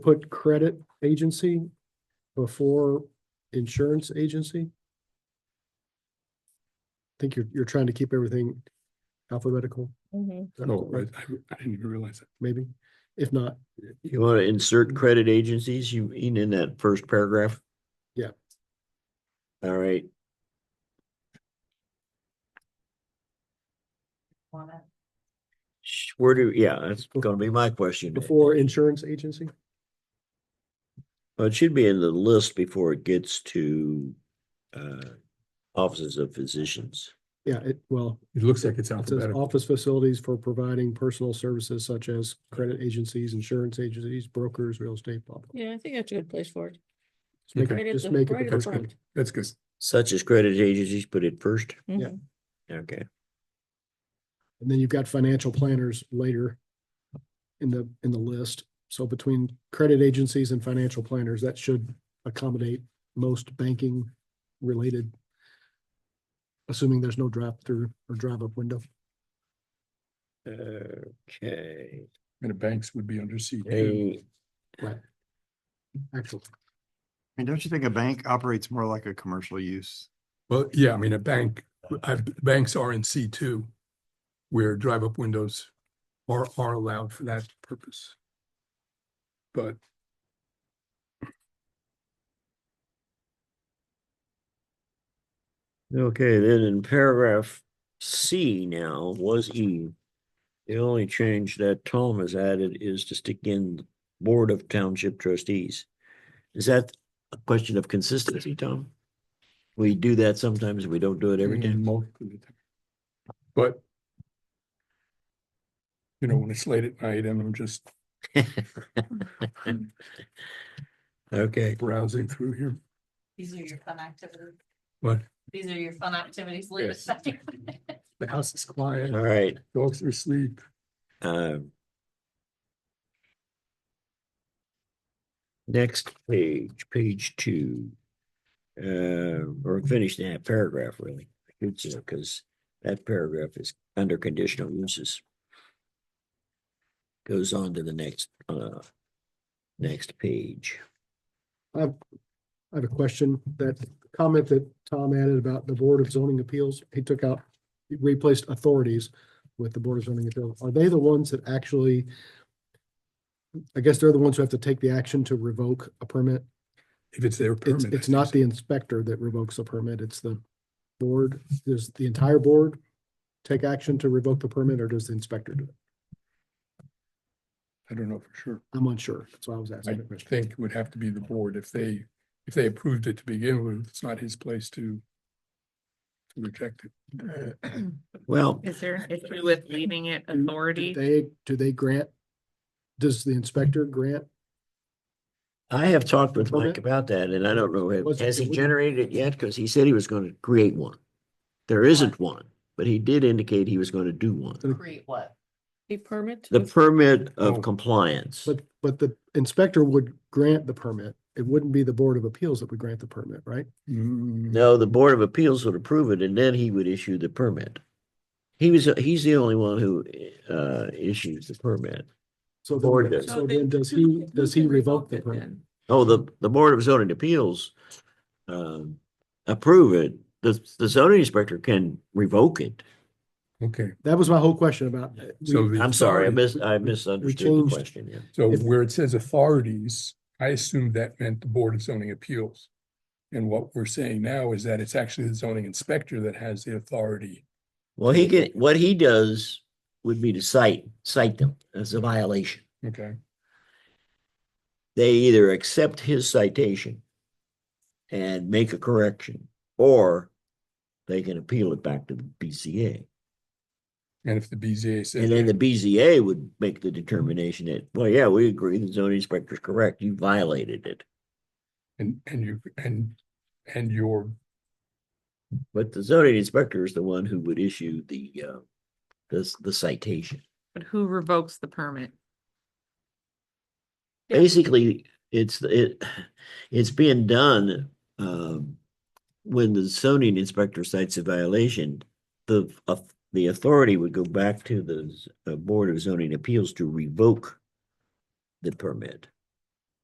put credit agency before insurance agency? I Think you're, you're trying to keep everything alphabetical, Mm-hmm. Mhm. Oh, right, I, I didn't even realize that. maybe? If not, You want to insert credit agencies, you mean in that first paragraph? Yeah. All right, Sh- where do, yeah, that's gonna be my question. before insurance agency, Well, It should be in the list before it gets to uh offices of physicians. yeah, it, well, It looks like it's it says alphabetical. office facilities for providing personal services such as credit agencies, insurance agencies, brokers, real estate, blah, blah. Yeah, I think that's a good place for it. Just make Okay. Right it, at just the- make right at it, the That's because- good. front. That's good. Such as credit agencies, put it first, Mhm. okay. and then you've got financial planners later in the, in the list. So between credit agencies and financial planners, that should accommodate most banking related, assuming there's no drive through or drive up window. Okay, And the banks would be under C two. A, Excellent. I mean, don't you think a bank operates more like a commercial use? Well, yeah, I mean, a bank, I, banks are in C two. Where drive-up windows are, are allowed for that purpose. But okay, then in paragraph C now was E. The only change that Tom has added is to stick in Board of Township Trustees. Is that a question of consistency, Tom? We do that sometimes, we don't do it every Mm, time. most of the time. But. You know, when it's late at night and I'm just Okay, browsing through here, These are your fun activities. What? These are your fun activities. Yes. the house is quiet, all right, dogs are asleep. um. Next page, page two. Uh, or finish that paragraph really, because that paragraph is under conditional uses. Goes on to the next, uh, next page. I have a question, that comment that Tom added about the Board of Zoning Appeals, he took out, he replaced authorities with the Board of Zoning Appeals. Are they the ones that actually, I guess they're the ones who have to take the action to revoke a permit? If it's their It's, permit. it's not the inspector that revokes the permit, it's the board, does the entire board take action to revoke the permit, or does the inspector do it? I don't know for sure. I'm unsure, that's why I was I asking. the question. think it would have to be the board if they, if they approved it to begin with, it's not his place to to reject it. Well, Is there an issue with leaving it Do authority? They, do they grant, does the inspector grant I have talked with Okay. Mike about that and I don't know, ha- Was it- has he it would- generated it yet? Cause he said he was gonna create one. There isn't one, but he did indicate he was gonna do one. Create what? A permit? The with- permit Oh. of compliance. But, but the inspector would grant the permit. It wouldn't be the Board of Appeals that would grant the permit, right? Mm, No, the Board of Appeals would approve it and then he would issue the permit. He was, he's the only one who, uh, issues the permit. So Board then, does. so So then they- does who- he, who does he can revoke the it permit? then? Oh, the, the Board of Zoning Appeals, um, approve it. The, the zoning inspector can revoke it. Okay, That was my whole question about. uh, we- so. the I'm sorry, I authority- mis- I misunderstood changed- the question, yeah. So if- where it says authorities, I assumed that meant the Board of Zoning Appeals. And what we're saying now is that it's actually the zoning inspector that has the authority. Well, he can, what he does would be to cite, cite them as a violation. Okay, They either accept his citation and make a correction, or they can appeal it back to the BCA. and if the BZA And then the says, BZA would make the determination that, well, yeah, we agree, the zoning inspector's correct, you violated it. and, and you, and, and your, But the zoning inspector is the one who would issue the, uh, the, the citation. But who revokes the permit? Yeah. basically, it's, it, it's being done, um, when the zoning inspector cites a violation, the, uh, the authority would go back to the z- uh, Board of Zoning Appeals to revoke the permit.